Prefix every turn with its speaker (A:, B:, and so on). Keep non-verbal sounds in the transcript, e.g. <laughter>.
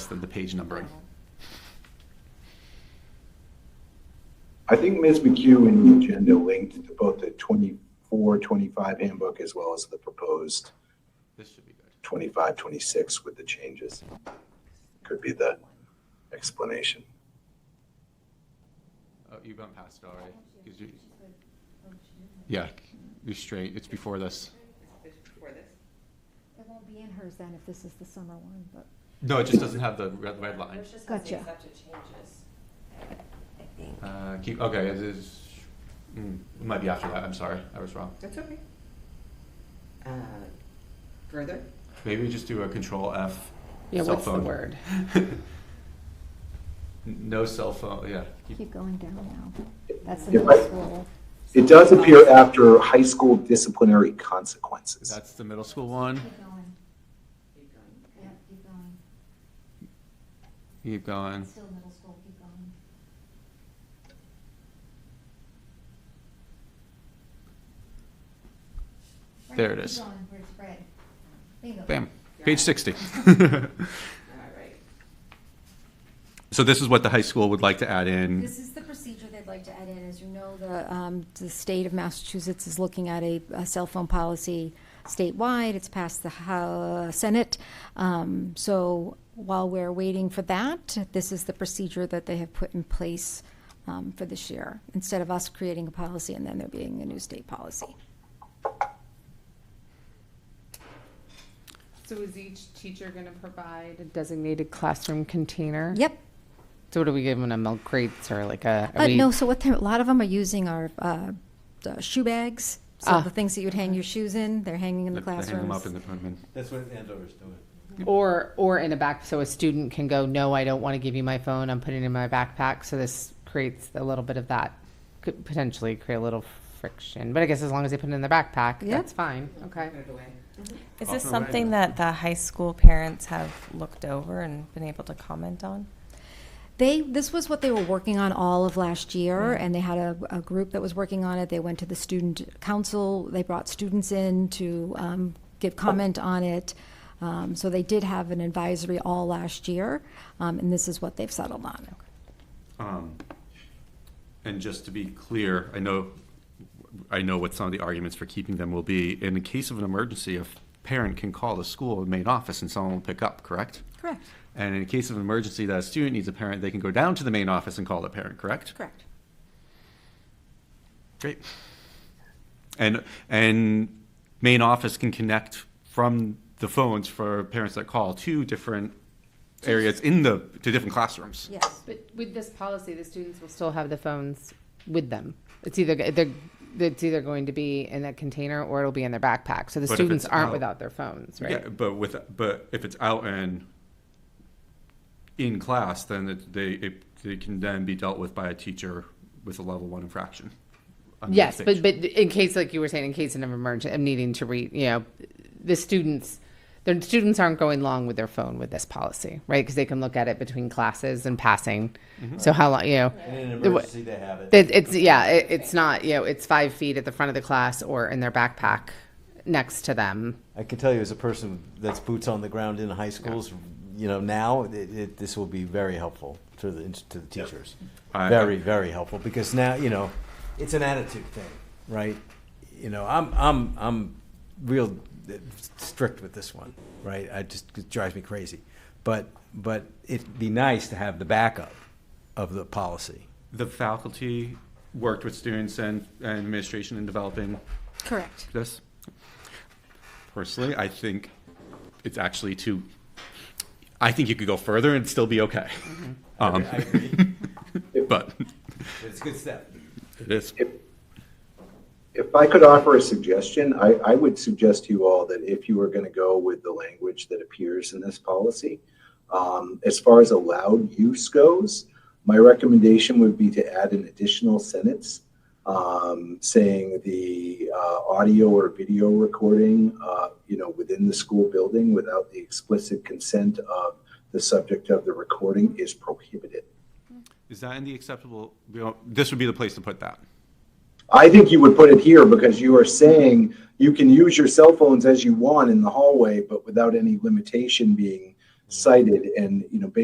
A: the, the page numbering.
B: I think Ms. McHugh in the agenda linked to both the 24, 25 handbook as well as the proposed
A: This should be good.
B: 25, 26 with the changes. Could be the explanation.
A: Oh, you went past it already. 'Cause you- Yeah, you're straight. It's before this.
C: This is before this.
D: It won't be in hers then if this is the summer one, but
A: No, it just doesn't have the red, red line.
C: Yours just has the
D: Gotcha.
C: accepted changes.
D: I think.
A: Uh, keep, okay, it is, mm, it might be after that. I'm sorry. I was wrong.
C: That's okay. Uh, Further?
A: Maybe we just do a control F.
E: Yeah,
A: cell
E: what's the
A: phone.
E: word?
A: <laughs> No cell phone, yeah. Keep-
D: Keep going down now. That's the
B: If
D: middle
B: I-
D: school.
B: It does appear after high school disciplinary consequences.
A: That's the middle school one.
D: Keep going,
C: Keep going.
D: yeah, keep going.
A: Keep going.
D: Still middle school, keep going. Right,
A: There it
D: keep
A: is.
D: going, where it's red. Bingo.
A: Bam. Page <laughs> 60.
C: All right.
A: so this is what the high school would like to add in.
D: This is the procedure they'd like to add in. As you know, the, um, the state of Massachusetts is looking at a, a cell phone policy statewide. It's passed the Hou- Senate. Um, so while we're waiting for that, this is the procedure that they have put in place, um, for this year. Instead of us creating a policy and then there being a new state policy.
E: So is each teacher going to provide a designated classroom container?
D: Yep.
E: So what are we giving them, milk crates or like a? are
D: Uh,
E: we-
D: no, so what they're, a lot of them are using are, uh, uh, shoe bags. So
E: Ah.
D: the things that you'd hang your shoes in, they're hanging in the
A: They
D: classrooms.
A: Hang them up in the Pullman.
F: That's what Andover's doing.
E: Or, or in a back, so a student can go, no, I don't want to give you my phone, I'm putting it in my backpack, so this creates a little bit of that. Could potentially create a little friction, but I guess as long as they put it in their backpack,
D: Yeah.
E: that's fine, okay.
C: Put it away.
G: Is this
A: Often right
G: something
A: now.
G: that the high school parents have looked over and been able to comment on?
D: They, this was what they were working on all of last year, and they had a, a group that was working on it. They went to the student council, they brought students in to um, give comment on it. Um, so they did have an advisory all last year, um, and this is what they've settled on.
A: Um, And just to be clear, I know, I know what some of the arguments for keeping them will be. In the case of an emergency, a parent can call the school main office and someone will pick up, correct?
D: Correct,
A: And in case of an emergency that a student needs a parent, they can go down to the main office and call the parent, correct?
D: correct.
A: Great. And, and main office can connect from the phones for parents that call to different areas in the, to different classrooms.
D: Yes,
E: But with this policy, the students will still have the phones with them. It's either, they're, it's either going to be in that container or it'll be in their backpack, so the
A: But if
E: students
A: it's out-
E: aren't without their phones, right?
A: Yeah, but with, but if it's out and in class, then it, they, it, they can then be dealt with by a teacher with a level one infraction. under the
E: Yes, but,
A: state.
E: but in case, like you were saying, in case of an emergency, I'm needing to read, you know, the students, the students aren't going long with their phone with this policy, right? Because they can look at it between classes and passing. So how long, you know,
F: And in an
E: The wa-
F: emergency, they have it.
E: it, it's, yeah, it, it's not, you know, it's five feet at the front of the class or in their backpack next to them.
F: I can tell you as a person that's boots on the ground in high schools, you know, now, it, it, this will be very helpful to the, to the teachers.
A: I-
F: Very, very helpful, because now, you know, it's an attitude thing, right? You know, I'm, I'm, I'm real uh, strict with this one, right? I just, it drives me crazy. But, but it'd be nice to have the backup of the policy.
A: The faculty worked with students and, and administration in developing
D: correct.
A: this. Personally, I think it's actually too, I think you could go further and still be okay. Um,
F: Mm-hmm. I agree.
A: <laughs> but
F: It's a good step.
A: it is.
B: If if I could offer a suggestion, I, I would suggest to you all that if you were going to go with the language that appears in this policy, um, as far as allowed use goes, my recommendation would be to add an additional sentence um, saying the uh, audio or video recording, uh, you know, within the school building without the explicit consent of the subject of the recording is prohibited.
A: Is that in the acceptable, you know, this would be the place to put that.
B: I think you would put it here because you are saying you can use your cell phones as you want in the hallway, but without any limitation being cited and, you know, basically